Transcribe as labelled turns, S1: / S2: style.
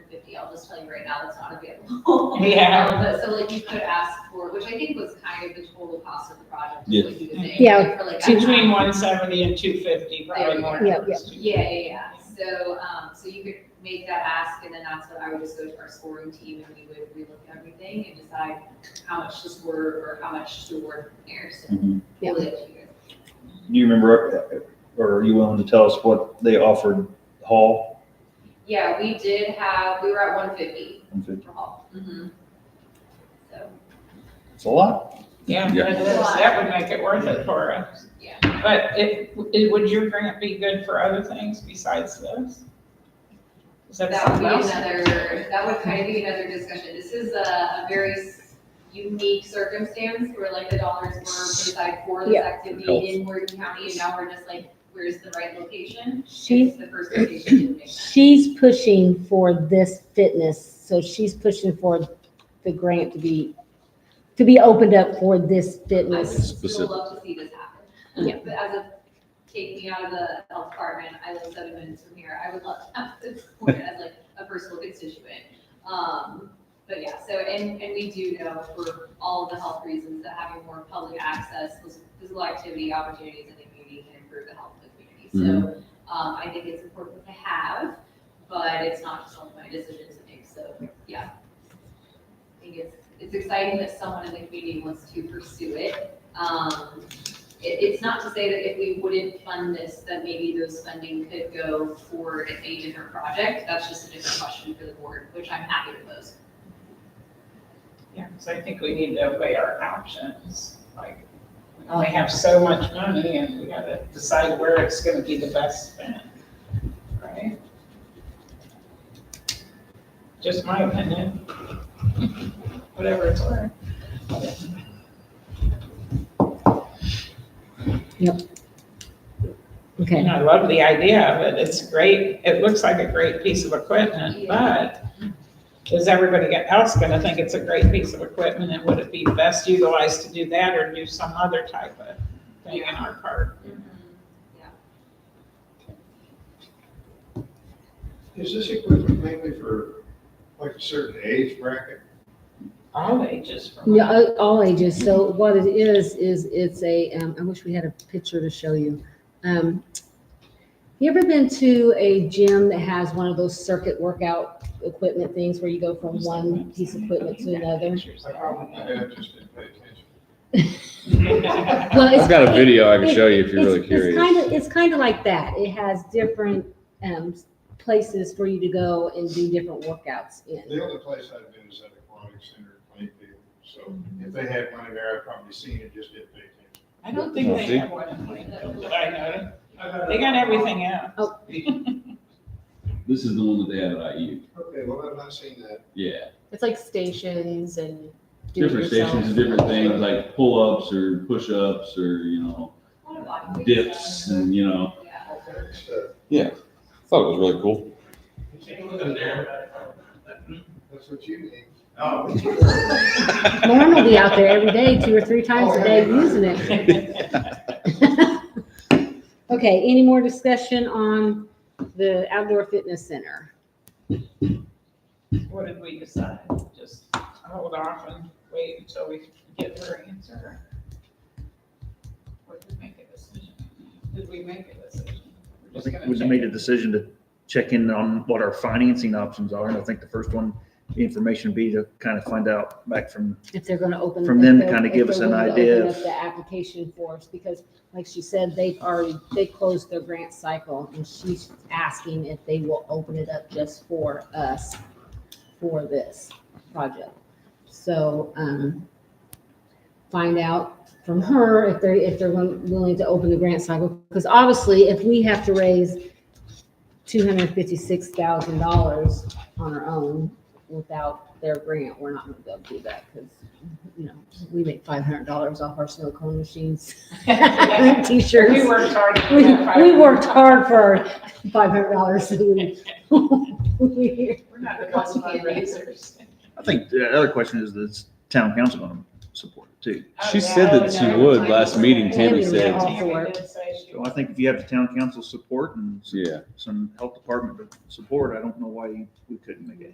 S1: fifty, I'll just tell you right now, that's not available.
S2: Yeah.
S1: Um, But so like you could ask for, which I think was kind of the total cost of the project, is what you were saying.
S3: Yeah.
S1: like, for like that
S2: Between
S1: half.
S2: one seventy and two fifty, probably more.
S3: Yeah,
S1: Yeah, yeah, yeah, so, um, so you could make that ask, and then that's what I would just go to our scoring team, and we would relook at everything and decide how much to score or how much to award Harrison.
S4: Do
S3: Yeah.
S1: We'll let you guys-
S4: you remember, uh, or are you willing to tell us what they offered Hall?
S1: Yeah, we did have, we were at one fifty
S4: and fifty?
S1: for hall. Mhm. So,
S4: It's a lot.
S2: Yeah,
S5: Yeah.
S2: that is- that would make it worth it for us.
S1: Yeah.
S2: But it, it- would your grant be good for other things besides this? Is that
S1: that would
S2: something
S1: be
S2: else?
S1: another, that would kind of be another discussion. This is a, a very s- unique circumstance where like the dollars were put aside for this
S3: Yeah.
S1: activity
S5: Health.
S1: in Morgan County, and now we're just like, where's the right location?
S3: She's,
S1: It's the first location that makes sense.
S3: she's pushing for this fitness, so she's pushing for the grant to be, to be opened up for this
S1: I would
S3: fitness.
S1: still
S5: Specific.
S1: love to see this happen.
S3: Yeah.
S1: But as a, take me out of the health department, I live seven minutes from here, I would love to have this point as like a personal constituent. Um, but yeah, so, and, and we do know for all of the health reasons that having more public access, phys- physical activity opportunities in the community can improve the health of the community. So, um, I think it's important to have, but it's not just one of my decisions to make, so, yeah. I think it's, it's exciting that someone in the community wants to pursue it. Um, it, it's not to say that if we wouldn't fund this, that maybe those funding could go for a different project. That's just a different question for the board, which I'm happy to pose.
S2: Yeah, because I think we need to weigh our options, like, we only have so much money and we gotta decide where it's gonna be the best spent, right? Just my opinion, whatever it's worth.
S3: Okay,
S2: And I love the idea of it, it's great, it looks like a great piece of equipment, but is everybody else gonna think it's a great piece of equipment, and would it be best utilized to do that or do some other type of thing in our park?
S6: Is this equipment mainly for like a certain age bracket?
S2: All ages from.
S3: yeah, all- all ages, so what it is, is it's a, um, I wish we had a picture to show you. Um, You ever been to a gym that has one of those circuit workout equipment things where you go from one piece of equipment to another?
S6: I probably did, just didn't pay attention.
S3: Well, it's-
S5: I've got a video I can show you if you're really
S3: It's, it's kind
S5: curious.
S3: of, it's kind of like that. It has different, um, places for you to go and do different workouts in.
S6: The only place I've been is at Aquatic Center in Plainfield, so if they had money there, I'd probably seen it, just didn't pay attention.
S2: I don't think they have one in Plainfield, that I know, they got everything else.
S3: Oh.
S7: This is the one that they have at IU.
S6: Okay, well, I've not seen that.
S7: Yeah.
S3: It's like stations and. do it
S7: Different
S3: yourself.
S7: stations and different things like pull ups or push ups or, you know, dips and, you know.
S1: Yeah.
S6: Okay, so
S5: I Thought it was really cool.
S6: That's what you need.
S3: Lauren will be out there every day, two or three times a
S7: Oh,
S3: day using it. Okay, any more discussion on the outdoor fitness center?
S2: What did we decide? Just hold off and wait until we get her answer? Or did we make a decision? Did we make a decision? We're
S4: I
S2: just
S4: think
S2: gonna
S4: we
S2: check
S4: made a
S2: it.
S4: decision to check in on what our financing options are, and I think the first one, the information would be to kind of find out back from,
S3: If they're gonna open.
S4: From them to
S3: if they're-
S4: kinda
S3: if
S4: give
S3: they're
S4: us an
S3: willing to
S4: idea
S3: open
S4: of-
S3: up The application for us, because like she said, they've already, they closed their grant cycle and she's asking if they will open it up just for us for this project. So, um, find out from her if they're, if they're wi- willing to open the grant cycle. Because obviously, if we have to raise two hundred and fifty-six thousand dollars on our own without their grant, we're not gonna be able to do that because, you know, we make five hundred dollars off our snow cone machines, t-shirts.
S2: We worked hard. to
S3: We,
S2: get
S3: we
S2: five-
S3: worked hard for five hundred dollars. We
S2: We're not the best fundraisers.
S4: I think the other question is, is town council going to support it too?
S5: She said that she would. Last meeting,
S3: Tammy said-
S2: Tammy did say she
S4: So I
S2: would.
S4: think if you have the town council support and
S5: Yeah.
S4: some health department support, I don't know why we couldn't make it